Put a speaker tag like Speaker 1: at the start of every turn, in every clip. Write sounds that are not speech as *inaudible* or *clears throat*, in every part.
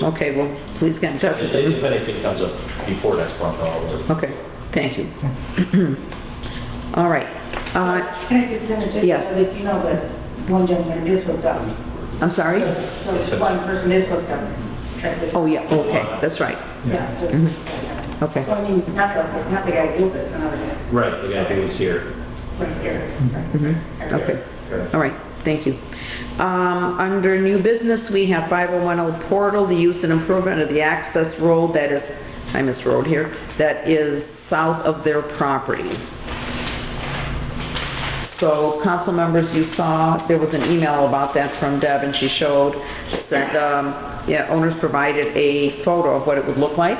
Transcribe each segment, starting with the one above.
Speaker 1: Okay, well, please get in touch with them.
Speaker 2: If anything comes up before next month, I'll,
Speaker 1: Okay, thank you. *clears throat* All right. Uh,
Speaker 3: Can I just interject?
Speaker 1: Yes.
Speaker 3: If you know that one gentleman is hooked up,
Speaker 1: I'm sorry?
Speaker 3: so if one person is hooked up at this.
Speaker 1: Oh, yeah, Mm-hmm. okay, that's right.
Speaker 3: Yeah, so,
Speaker 1: Okay.
Speaker 3: so I mean, not the, not the guy who built it, another guy,
Speaker 2: right, the guy who was here.
Speaker 3: right here. right?
Speaker 1: Mm-hmm. Okay, all right, thank you. Um, Under new business, we have 5010 Portal, the use and improvement of the access road that is, I missed road here, that is south of their property. So, council members, you saw, there was an email about that from Deb, and she showed, said, um, yeah, owners provided a photo of what it would look like,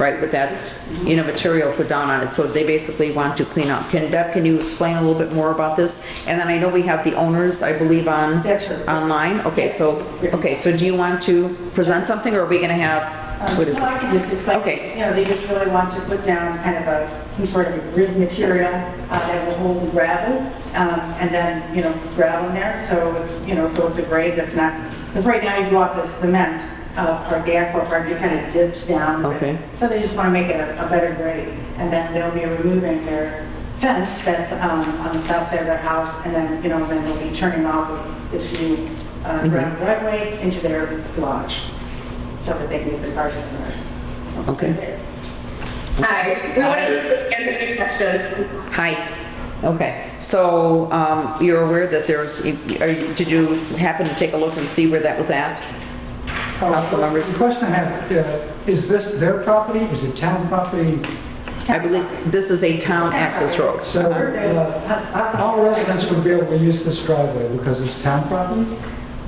Speaker 1: right, with that, you know, material put down on it, so they basically want to clean up. Can, Deb, can you explain a little bit more about this? And then I know we have the owners, I believe, on.
Speaker 3: Yes, sir.
Speaker 1: Online, okay, so, okay, so do you want to present something, or are we gonna have,
Speaker 3: Um,
Speaker 1: what is
Speaker 3: Well, I
Speaker 1: it?
Speaker 3: can just
Speaker 1: Okay.
Speaker 3: explain, you know, they just really want to put down kind of a, some sort of a grid material uh, that will hold gravel, um, and then, you know, gravel in there, so it's, you know, so it's a grade that's not, because right now you go up the cement, uh, part, the asphalt part, it kind of dips down.
Speaker 1: Okay.
Speaker 3: So they just want to make it a a better grade, and then they'll be removing their fence that's um, on the south side of their house, and then, you know, then they'll be turning off of this new
Speaker 1: Mm-hmm.
Speaker 3: uh, gravel driveway into their garage, so that they can get their cars in there.
Speaker 1: Okay.
Speaker 4: Hi, we want to answer any question.
Speaker 1: Hi, okay, so, um, you're aware that there's, are you- did you happen to take a look and see where that was at?
Speaker 5: Oh.
Speaker 1: Council members?
Speaker 5: The question I have, uh, is this their property? Is it town property?
Speaker 1: I believe this is a town access road.
Speaker 5: So uh, all residents would be able to use this driveway because it's town property?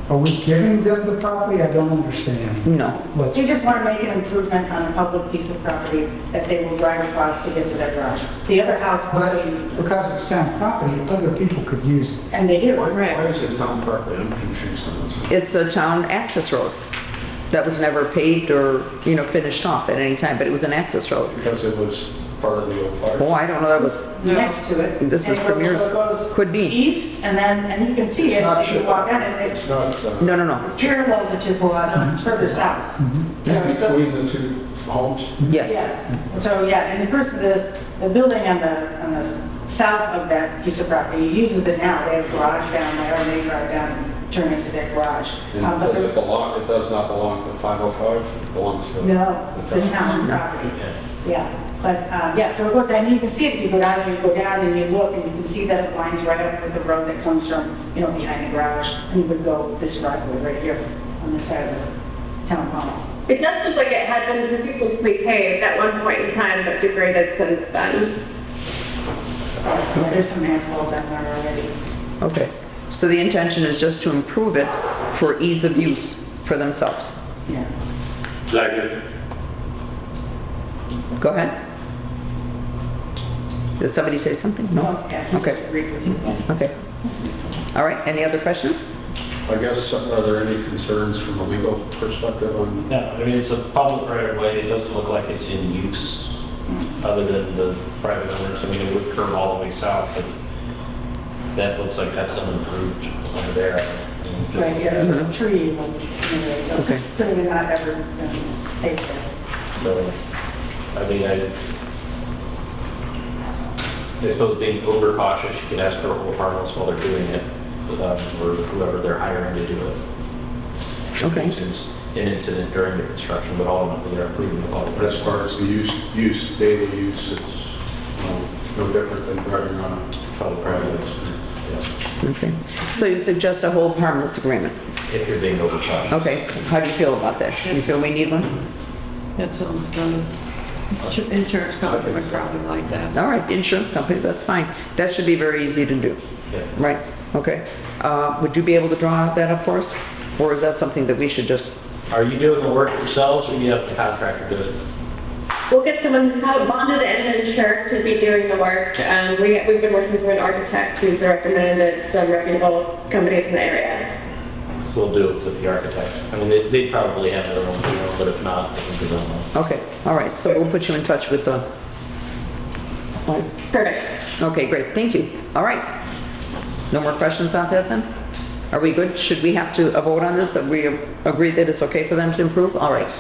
Speaker 5: Are we giving them the property? I don't understand.
Speaker 1: No,
Speaker 5: What's,
Speaker 3: They just want to make an improvement on a public piece of property that they will drive across to get to their garage. The other house
Speaker 5: but
Speaker 3: also uses,
Speaker 5: because it's town property, other people could use it.
Speaker 3: and they do. Right.
Speaker 6: Why is it town property? I'm confused on this.
Speaker 1: it's a town access road that was never paved or, you know, finished off at any time, but it was an access road.
Speaker 6: Because it was part of the old fire.
Speaker 1: Oh, I don't know, that was,
Speaker 3: next to it.
Speaker 1: This is
Speaker 3: And it goes-
Speaker 1: Premier's.
Speaker 3: it goes
Speaker 1: Could be.
Speaker 3: East, and then, and you can see it,
Speaker 6: It's not
Speaker 3: if you
Speaker 6: sure.
Speaker 3: walk down it,
Speaker 6: It's
Speaker 3: it's
Speaker 6: not uh,
Speaker 1: no, no, no,
Speaker 3: parallel to Chippewa, further south. So it goes-
Speaker 6: between the two homes.
Speaker 1: yes.
Speaker 3: yeah. So, yeah, and the person, the, the building on the, on the s- south of that piece of property uses it now, they have a garage down there, and they drive down and turn into their garage. Um,
Speaker 6: And
Speaker 3: but
Speaker 6: does
Speaker 3: the-
Speaker 6: it belong, it does not belong to 505, it belongs to...
Speaker 3: No, it's a town property. Yeah, but, uh, yeah, so it goes, and you can see it, if you go down and you go down and you look, and you can see that it lines right up with the road that comes from, you know, behind the garage, and you would go this driveway right here on this side of the town hall.
Speaker 4: It does look like it had been ridiculously paved at one point in time, but degraded since then.
Speaker 3: Yeah, there's some asphalt down there already.
Speaker 1: Okay, so the intention is just to improve it for ease of use for themselves.
Speaker 3: Yeah.
Speaker 1: Go ahead. Did somebody say something? No?
Speaker 3: Well, Oh, yeah, I just
Speaker 1: Okay. Mm-hmm.
Speaker 3: agreed with you.
Speaker 1: Okay. All right, any other questions?
Speaker 6: I guess, are there any concerns from a legal perspective on,
Speaker 2: No, I mean, it's a public right of way, it doesn't look like it's in use other than the private owners. I mean, it would curve all the way south, but that looks like that's unimproved under there. I mean, just-
Speaker 3: Right, yeah, there's a tree, you know, anyway, so
Speaker 1: Okay.
Speaker 3: it's clearly not ever been paved there.
Speaker 2: So, I mean, I, I suppose being over cautious, you could ask for a whole harmless while they're doing it, um, or whoever they're hiring to do it.
Speaker 1: Okay.
Speaker 2: It's An incident during the construction, but ultimately they're improving the quality.
Speaker 6: but as far as the use, use, daily use, it's you know, no different than driving on a
Speaker 2: Public right
Speaker 6: private
Speaker 2: of ways.
Speaker 6: street.
Speaker 2: Yeah.
Speaker 1: Okay, so you suggest a hold harmless agreement?
Speaker 2: If you're being over cautious.
Speaker 1: Okay, how do you feel about that? You feel we need one?
Speaker 7: That sounds good. Should- Insurance company would probably like that.
Speaker 1: All right, the insurance company, that's fine. That should be very easy to do.
Speaker 2: Yeah.
Speaker 1: Right, okay. Uh, Would you be able to draw that up for us? Or is that something that we should just,
Speaker 2: Are you doing the work yourselves or you have the contractor do it?
Speaker 4: We'll get someone to have bonded and insured to be doing the work. Um, we, we've been working with an architect who's recommended some reputable companies in the area.
Speaker 2: So we'll do it with the architect. I mean, they, they probably have their own, you know, but if not, I think we don't know.
Speaker 1: okay, all right, so we'll put you in touch with the...
Speaker 4: Perfect.
Speaker 1: Okay, great, thank you. All right. No more questions on that then? Are we good? Should we have to uh, vote on this, that we agree that it's okay for them to improve? All right.